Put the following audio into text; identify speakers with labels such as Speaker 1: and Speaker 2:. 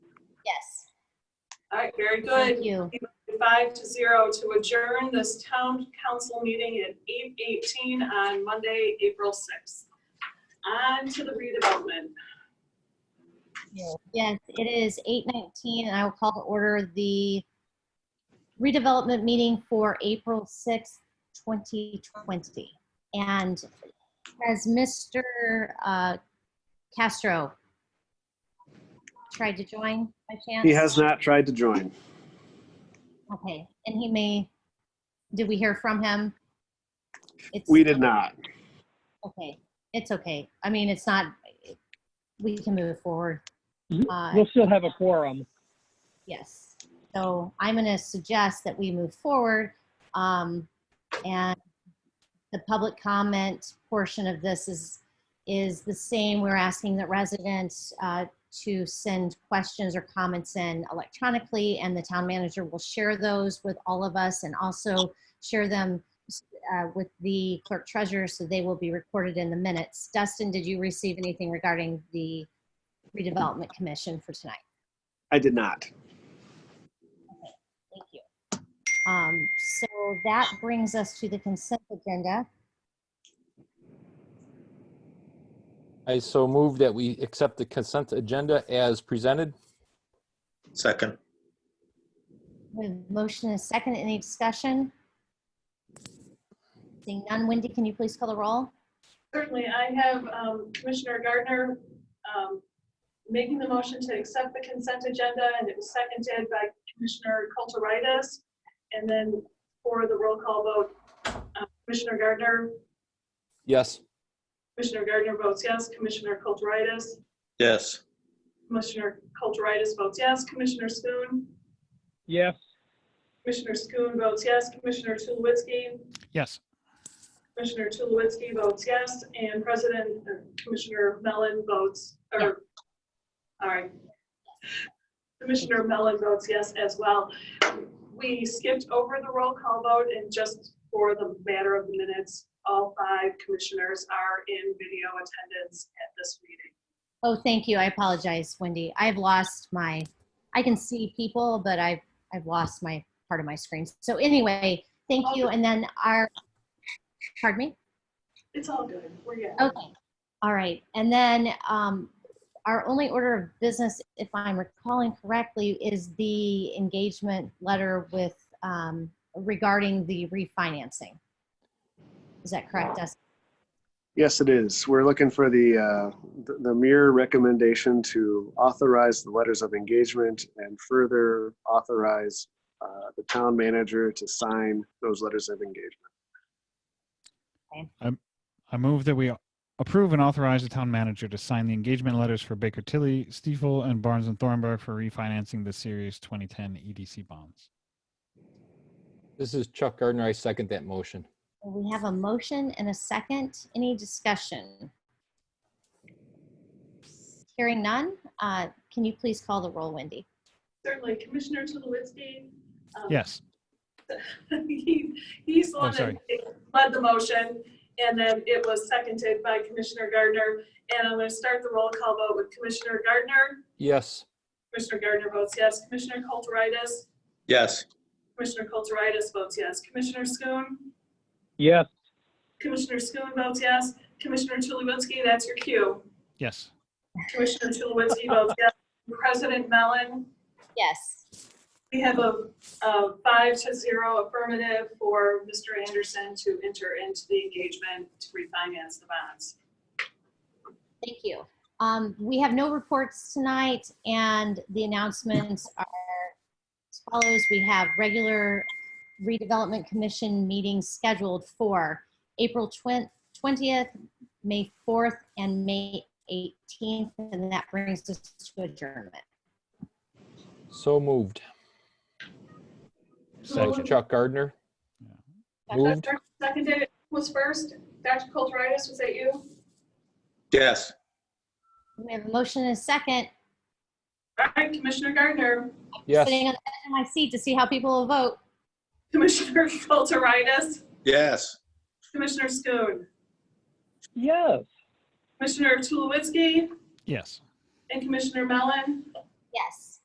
Speaker 1: All right, very
Speaker 2: Thank
Speaker 1: good.
Speaker 2: you.
Speaker 1: Five to zero to adjourn this town council meeting at eight eighteen on Monday, April sixth. On to the redevelopment.
Speaker 2: Yes, it is 8:19, and I will call to order the redevelopment meeting for April 6th, 2020. And as Mr. uh, Castro tried to join by chance?
Speaker 3: He has not tried to join.
Speaker 2: Okay, and he may, did we hear from him? It's-
Speaker 3: We did not.
Speaker 2: Okay, it's okay. I mean, it's not, we can move forward.
Speaker 4: Mhm.
Speaker 2: Uh,
Speaker 4: We'll still have a quorum.
Speaker 2: Yes. So I'm going to suggest that we move forward. um, And the public comment portion of this is, is the same. We're asking that residents uh, to send questions or comments in electronically, and the town manager will share those with all of us and also share them uh, with the clerk treasurer, so they will be recorded in the minutes. Dustin, did you receive anything regarding the redevelopment commission for tonight?
Speaker 3: I did not.
Speaker 2: Thank you. Um, So that brings us to the consent agenda.
Speaker 5: I so move that we accept the consent agenda as presented.
Speaker 6: Second,
Speaker 2: We have a motion and a second. Any discussion? Seeing none, Wendy, can you please call the roll?
Speaker 1: Certainly, I have um, Commissioner Gardner um, making the motion to accept the consent agenda, and it was seconded by Commissioner Kulturitis. And then for the roll call vote, uh, Commissioner Gardner,
Speaker 5: Yes.
Speaker 1: Commissioner Gardner votes yes, Commissioner Kulturitis,
Speaker 6: yes.
Speaker 1: Commissioner Kulturitis votes yes, Commissioner Schoon,
Speaker 4: Yes.
Speaker 1: Commissioner Schoon votes yes, Commissioner Tulowitzki,
Speaker 7: Yes.
Speaker 1: Commissioner Tulowitzki votes yes, and President, uh, Commissioner Mellon votes, or, all right. Commissioner Mellon votes yes as well. We skipped over the roll call vote, and just for the matter of the minutes, all five commissioners are in video attendance at this meeting.
Speaker 2: Oh, thank you. I apologize, Wendy. I've lost my, I can see people, but I've, I've lost my, part of my screen. So anyway, thank you. And then our, pardon me?
Speaker 1: It's all good, we're good.
Speaker 2: Okay, all right. And then um, our only order of business, if I'm recalling correctly, is the engagement letter with, um, regarding the refinancing. Is that correct, Dustin?
Speaker 3: Yes, it is. We're looking for the, uh, the- the mere recommendation to authorize the letters of engagement and further authorize uh, the town manager to sign those letters of engagement.
Speaker 7: I move that we approve and authorize the town manager to sign the engagement letters for Baker Tilly, Stiefel, and Barnes and Thornburg for refinancing the Series 2010 EDC bonds.
Speaker 5: This is Chuck Gardner. I second that motion.
Speaker 2: We have a motion and a second. Any discussion? Hearing none, uh, can you please call the roll, Wendy?
Speaker 1: Certainly, Commissioner Tulowitzki. um,
Speaker 7: Yes.
Speaker 1: He He's the
Speaker 7: Oh,
Speaker 1: one that
Speaker 7: sorry.
Speaker 1: led the motion, and then it was seconded by Commissioner Gardner. And I'm going to start the roll call vote with Commissioner Gardner.
Speaker 5: Yes.
Speaker 1: Commissioner Gardner votes yes. Commissioner Kulturitis.
Speaker 6: Yes,
Speaker 1: Commissioner Kulturitis votes yes. Commissioner Schoon.
Speaker 4: Yes.
Speaker 1: Commissioner Schoon votes yes. Commissioner Tulowitzki, that's your cue.
Speaker 7: Yes.
Speaker 1: Commissioner Tulowitzki votes yes. President Mellon.
Speaker 2: Yes.
Speaker 1: We have a, a five to zero affirmative for Mr. Anderson to enter into the engagement to refinance the bonds.
Speaker 2: Thank you. Um, we have no reports tonight, and the announcements are as follows. We have regular redevelopment commission meetings scheduled for April twin- 20th, May 4th, and May 18th, and that brings us to adjournment.
Speaker 5: So moved.
Speaker 7: Second.
Speaker 5: Chuck Gardner. Moved.
Speaker 1: Dr. Seconded was first. Dr. Kulturitis, was that you?
Speaker 6: yes.
Speaker 2: We have a motion and a second.
Speaker 1: All right, Commissioner Gardner,
Speaker 5: Yes.
Speaker 2: Sitting on the edge of my seat to see how people will vote.
Speaker 1: Commissioner Kulturitis,
Speaker 6: Yes.
Speaker 1: Commissioner Schoon,
Speaker 4: Yes.
Speaker 1: Commissioner Tulowitzki,
Speaker 7: Yes.
Speaker 1: and Commissioner Mellon.
Speaker 2: Yes.